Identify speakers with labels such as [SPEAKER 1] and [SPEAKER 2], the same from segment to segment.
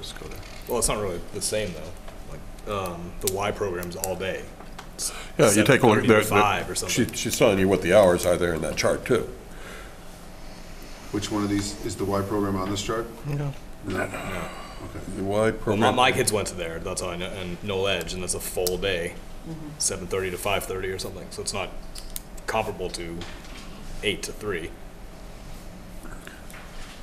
[SPEAKER 1] just go there.
[SPEAKER 2] Well, it's not really the same though. Like um, the Y program's all day. It's
[SPEAKER 1] Yeah, you take a look,
[SPEAKER 2] 7:30 to
[SPEAKER 1] there,
[SPEAKER 2] Five or
[SPEAKER 1] there- she,
[SPEAKER 2] something.
[SPEAKER 1] she's telling you what the hours are there in that chart too.
[SPEAKER 3] Which one of these is the Y program on this chart?
[SPEAKER 1] Yeah.
[SPEAKER 3] No.
[SPEAKER 1] The Y
[SPEAKER 2] Well, my,
[SPEAKER 1] program.
[SPEAKER 2] my kids went to there. That's all I know. And Noel Edge, and that's a full day, seven thirty to five thirty or something. So it's not comparable to eight to three.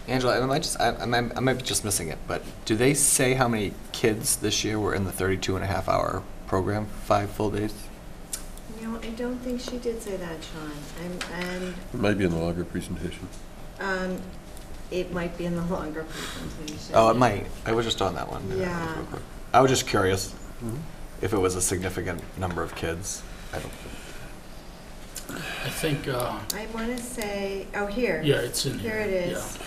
[SPEAKER 4] Angela, I might just, I, I might I might be just missing it, but do they say how many kids this year were in the 32 and a half hour program, five full days?
[SPEAKER 5] No, I don't think she did say that, Sean. And, and
[SPEAKER 1] It might be in the longer presentation.
[SPEAKER 5] um, it might be in the longer presentation.
[SPEAKER 4] Oh, it might. I was just on that one.
[SPEAKER 5] Yeah.
[SPEAKER 4] I was just curious if it was a significant number of kids. I don't,
[SPEAKER 6] I think, uh,
[SPEAKER 5] I want to say, oh, here.
[SPEAKER 6] yeah, it's in here.
[SPEAKER 5] Here it
[SPEAKER 6] yeah.
[SPEAKER 5] is.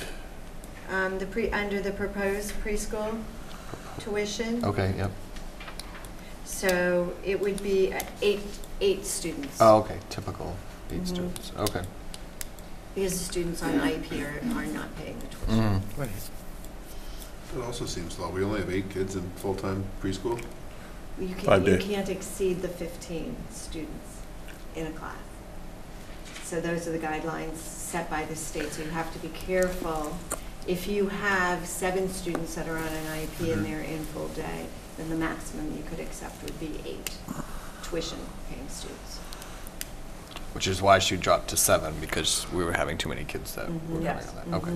[SPEAKER 5] Um, The pre, under the proposed preschool tuition.
[SPEAKER 4] okay, yep.
[SPEAKER 5] So it would be uh, eight, eight students.
[SPEAKER 4] Oh, okay, typical, eight
[SPEAKER 5] Mhm.
[SPEAKER 4] students, okay.
[SPEAKER 5] Because the students on IEP are, are not paying the tuition.
[SPEAKER 4] Mhm.
[SPEAKER 3] It also seems low. We only have eight kids in full-time preschool.
[SPEAKER 5] You
[SPEAKER 1] Five
[SPEAKER 5] can't, you
[SPEAKER 1] day.
[SPEAKER 5] can't exceed the 15 students in a class. So those are the guidelines set by the state, so you have to be careful. If you have seven students that are on an IEP
[SPEAKER 1] Mm-hmm.
[SPEAKER 5] and they're in full day, then the maximum you could accept would be eight tuition-paying students.
[SPEAKER 4] Which is why she dropped to seven, because we were having too many kids that
[SPEAKER 5] Mhm.
[SPEAKER 4] were going
[SPEAKER 7] Yes.
[SPEAKER 4] on that, okay.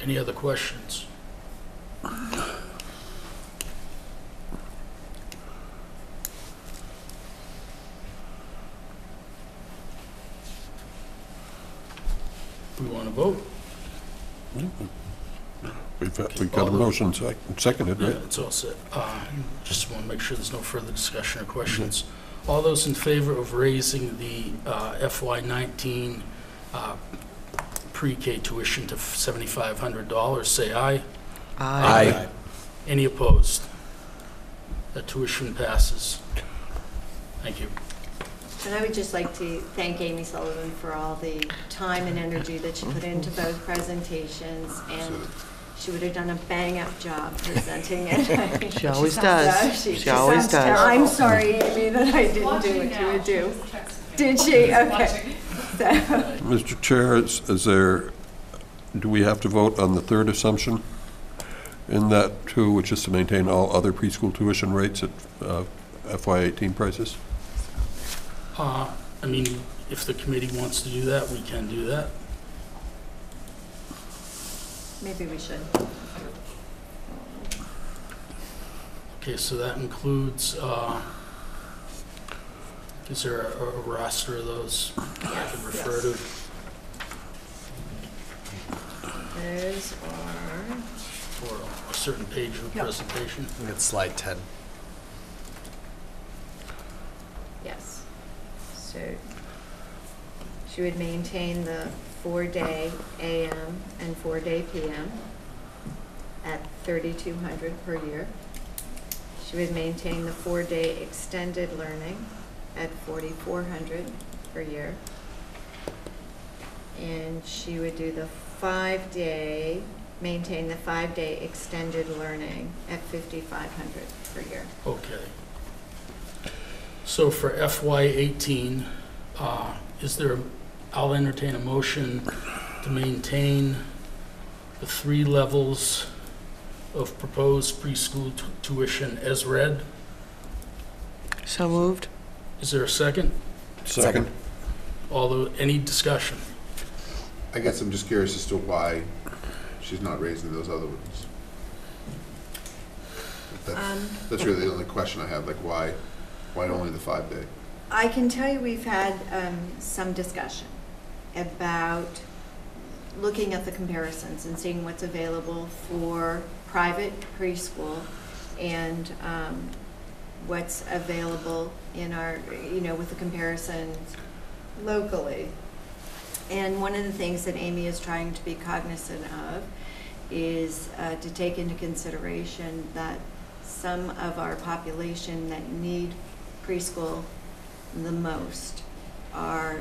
[SPEAKER 6] Any other questions? We want to vote?
[SPEAKER 1] We've, we've got a motion sec- seconded,
[SPEAKER 6] Yeah,
[SPEAKER 1] right?
[SPEAKER 6] it's all set. Uh, Just want to make sure there's no further discussion or questions. All those in favor of raising the uh, FY19 uh, pre-K tuition to $7,500, say aye.
[SPEAKER 4] Aye.
[SPEAKER 6] Any opposed? That tuition passes. Thank you.
[SPEAKER 5] And I would just like to thank Amy Sullivan for all the time and energy that she put into both presentations, and she would have done a bang-up job presenting it.
[SPEAKER 7] She always does.
[SPEAKER 5] So
[SPEAKER 7] She always
[SPEAKER 5] sounds terrible.
[SPEAKER 7] does. Mm-hmm.
[SPEAKER 5] I'm sorry, Amy, that I didn't do what you would do. Did she? Okay. So,
[SPEAKER 1] Mr. Chair, is, is there, do we have to vote on the third assumption in that too, which is to maintain all other preschool tuition rates at uh, FY eighteen prices?
[SPEAKER 6] Uh, I mean, if the committee wants to do that, we can do that.
[SPEAKER 5] Maybe we should.
[SPEAKER 6] Okay, so that includes, uh, is there a a roster of those I can refer to?
[SPEAKER 5] Those are,
[SPEAKER 6] for a certain page of the
[SPEAKER 5] Yep.
[SPEAKER 6] presentation.
[SPEAKER 4] I think it's slide 10.
[SPEAKER 5] yes. So she would maintain the four-day AM and four-day PM at 3,200 per year. She would maintain the four-day extended learning at 4,400 per year. And she would do the five-day, maintain the five-day extended learning at 5,500 per year.
[SPEAKER 6] Okay. So for FY eighteen, uh, is there, I'll entertain a motion to maintain the three levels of proposed preschool tu- tuition as read.
[SPEAKER 7] So moved.
[SPEAKER 6] Is there a second?
[SPEAKER 4] Second.
[SPEAKER 6] Although, any discussion?
[SPEAKER 3] I guess I'm just curious as to why she's not raising those other ones. That's,
[SPEAKER 5] Um,
[SPEAKER 3] that's really the only question I have, like why, why only the five-day?
[SPEAKER 5] I can tell you we've had um, some discussion about looking at the comparisons and seeing what's available for private preschool and um, what's available in our, you know, with the comparisons locally. And one of the things that Amy is trying to be cognizant of is uh, to take into consideration that some of our population that need preschool the most are